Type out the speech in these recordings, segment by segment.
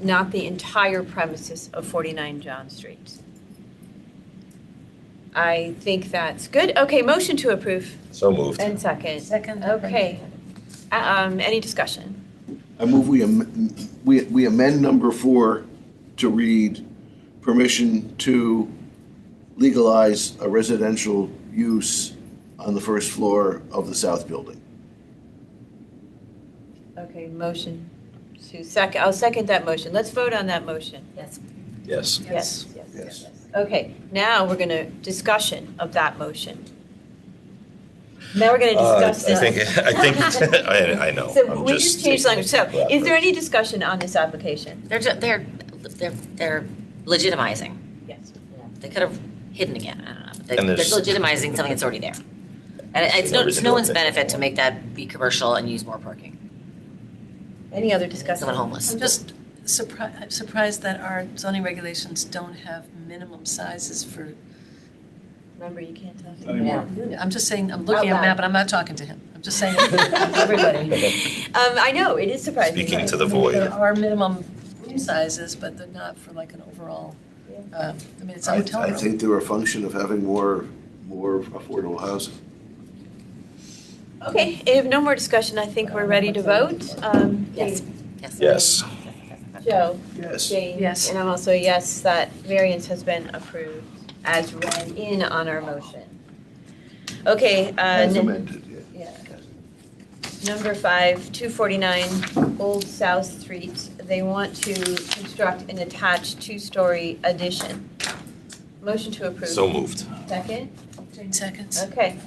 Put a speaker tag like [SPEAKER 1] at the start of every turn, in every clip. [SPEAKER 1] not the entire premises of 49 John Street. I think that's good. Okay, motion to approve
[SPEAKER 2] So moved.
[SPEAKER 1] and second.
[SPEAKER 3] Second.
[SPEAKER 1] Okay. Uh, Um, any discussion?
[SPEAKER 4] I move we, am- we we amend number four to read permission to legalize a residential use on the first floor of the south building.
[SPEAKER 1] Okay, motion to second, I'll second that motion. Let's vote on that motion.
[SPEAKER 3] Yes.
[SPEAKER 2] Yes.
[SPEAKER 1] Yes, yes,
[SPEAKER 4] Yes.
[SPEAKER 1] Okay, now we're going to, discussion of that motion. Now we're going to
[SPEAKER 2] Uh,
[SPEAKER 1] discuss
[SPEAKER 2] I
[SPEAKER 1] this.
[SPEAKER 2] think, I think, I, I know.
[SPEAKER 1] So
[SPEAKER 2] I'm
[SPEAKER 1] we just changed language. So is there any discussion on this application?
[SPEAKER 3] They're, ju- they're, they're, they're legitimizing.
[SPEAKER 1] Yes.
[SPEAKER 3] They could have hidden again, I don't know. but they-
[SPEAKER 2] And
[SPEAKER 3] They're
[SPEAKER 2] there's-
[SPEAKER 3] legitimizing something that's already there. And it- it's no, it's no one's benefit to make that be commercial and use more parking.
[SPEAKER 1] Any other
[SPEAKER 3] Someone
[SPEAKER 1] discussion?
[SPEAKER 3] homeless.
[SPEAKER 5] I'm just surprised, surprised that our zoning regulations don't have minimum sizes for,
[SPEAKER 1] Remember, you can't talk.
[SPEAKER 3] Yeah.
[SPEAKER 5] I'm just saying, I'm looking at
[SPEAKER 1] Out loud.
[SPEAKER 5] Matt, but I'm not talking to him. I'm just saying.
[SPEAKER 1] Everybody. Um, I know, it is surprising.
[SPEAKER 2] Speaking to
[SPEAKER 1] right?
[SPEAKER 2] the void.
[SPEAKER 5] There are minimum room sizes, but they're not for like an overall, uh, I mean, it's a
[SPEAKER 4] I
[SPEAKER 5] hotel
[SPEAKER 4] I
[SPEAKER 5] room.
[SPEAKER 4] think they're a function of having more, more affordable housing.
[SPEAKER 1] Okay, if no more discussion, I think we're ready to vote. Um,
[SPEAKER 3] Yes. Yes.
[SPEAKER 2] Yes.
[SPEAKER 1] Joe,
[SPEAKER 4] Yes.
[SPEAKER 1] Jane.
[SPEAKER 5] Yes.
[SPEAKER 1] And I'm also a yes, that variance has been approved as read in on our motion. Okay, uh,
[SPEAKER 4] As
[SPEAKER 1] n-
[SPEAKER 4] amended, yeah.
[SPEAKER 1] yeah. Number five, 249 Old South Street, they want to construct an attached two-story addition. Motion to approve.
[SPEAKER 2] So moved.
[SPEAKER 1] Second?
[SPEAKER 5] Jane seconds.
[SPEAKER 1] Okay.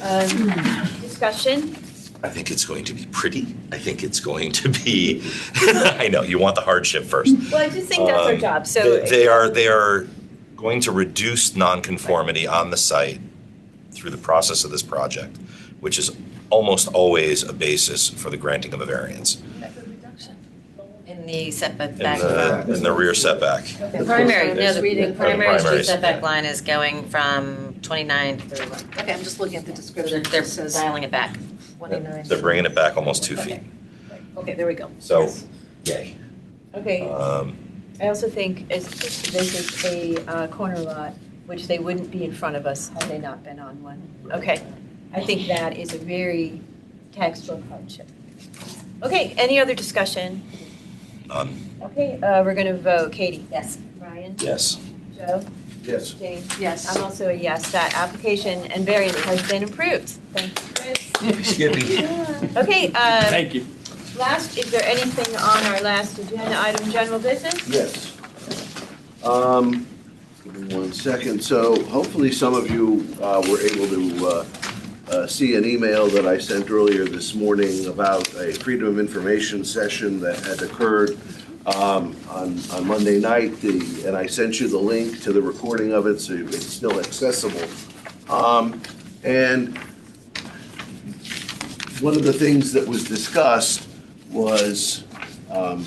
[SPEAKER 1] Um, Discussion?
[SPEAKER 2] I think it's going to be pretty. I think it's going to be, I know, you want the hardship first.
[SPEAKER 1] Well, I just think that's our
[SPEAKER 2] Um,
[SPEAKER 1] job,
[SPEAKER 2] They-
[SPEAKER 1] so.
[SPEAKER 2] They are, they are going to reduce nonconformity on the site through the process of this project, which is almost always a basis for the granting of a variance.
[SPEAKER 3] In the setback.
[SPEAKER 2] In the, in the rear setback.
[SPEAKER 3] The primary, no,
[SPEAKER 2] Just
[SPEAKER 3] the
[SPEAKER 2] reading.
[SPEAKER 3] the primary street
[SPEAKER 2] Primaries,
[SPEAKER 3] setback
[SPEAKER 2] yeah.
[SPEAKER 3] line is going from 29 to 31.
[SPEAKER 5] Okay, I'm just looking at the
[SPEAKER 3] They're
[SPEAKER 5] description.
[SPEAKER 3] they're
[SPEAKER 5] It says
[SPEAKER 3] dialing it back.
[SPEAKER 5] 29.
[SPEAKER 2] They're bringing it back almost two feet.
[SPEAKER 5] Okay, there we go.
[SPEAKER 2] So, yay.
[SPEAKER 1] Okay,
[SPEAKER 2] Um,
[SPEAKER 1] I also think it's, this is a uh, corner lot, which they wouldn't be in front of us had they not been on one. Okay, I think that is a very textual hardship. Okay, any other discussion?
[SPEAKER 2] None.
[SPEAKER 1] Okay, uh, we're going to vote. Katie?
[SPEAKER 3] Yes.
[SPEAKER 1] Ryan?
[SPEAKER 2] um, Yes.
[SPEAKER 1] Joe?
[SPEAKER 4] Yes.
[SPEAKER 1] Jane?
[SPEAKER 5] Yes.
[SPEAKER 1] I'm also a yes, that application and variance has been approved. Thank you, Chris. Okay, uh,
[SPEAKER 6] Thank you.
[SPEAKER 1] last, is there anything on our last agenda item, general business?
[SPEAKER 4] Yes. Um, give me one second. So hopefully some of you, uh, were able to, uh, uh, see an email that I sent earlier this morning about a Freedom of Information session that had occurred, um, on, on Monday night. The, and I sent you the link to the recording of it, so it's still accessible. Um, and one of the things that was discussed was, um,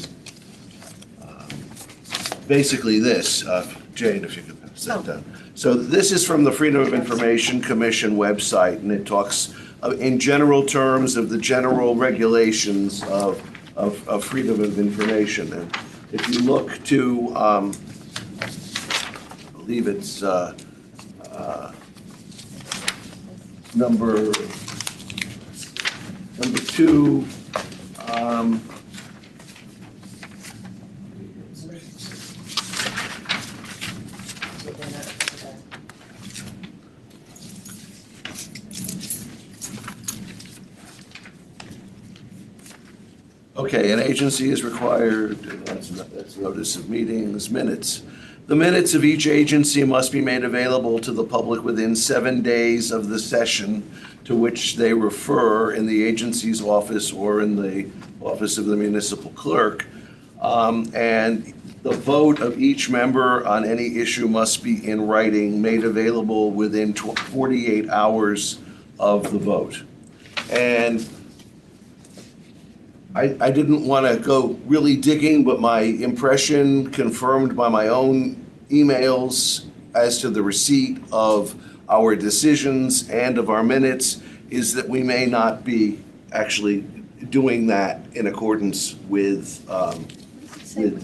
[SPEAKER 4] basically this, uh, Jane, if you could pass that down. So this is from the Freedom of Information Commission website, and it talks uh, in general terms of the general regulations of, of, of freedom of information. And if you look to, um, I believe it's, uh, uh, number, number two, um, Okay, an agency is required, that's, that's notice of meetings, minutes. The minutes of each agency must be made available to the public within seven days of the session to which they refer in the agency's office or in the office of the municipal clerk. Um, and the vote of each member on any issue must be in writing, made available within tw- forty-eight hours of the vote. And I, I didn't want to go really digging, but my impression confirmed by my own emails as to the receipt of our decisions and of our minutes is that we may not be actually doing that in accordance with, um, with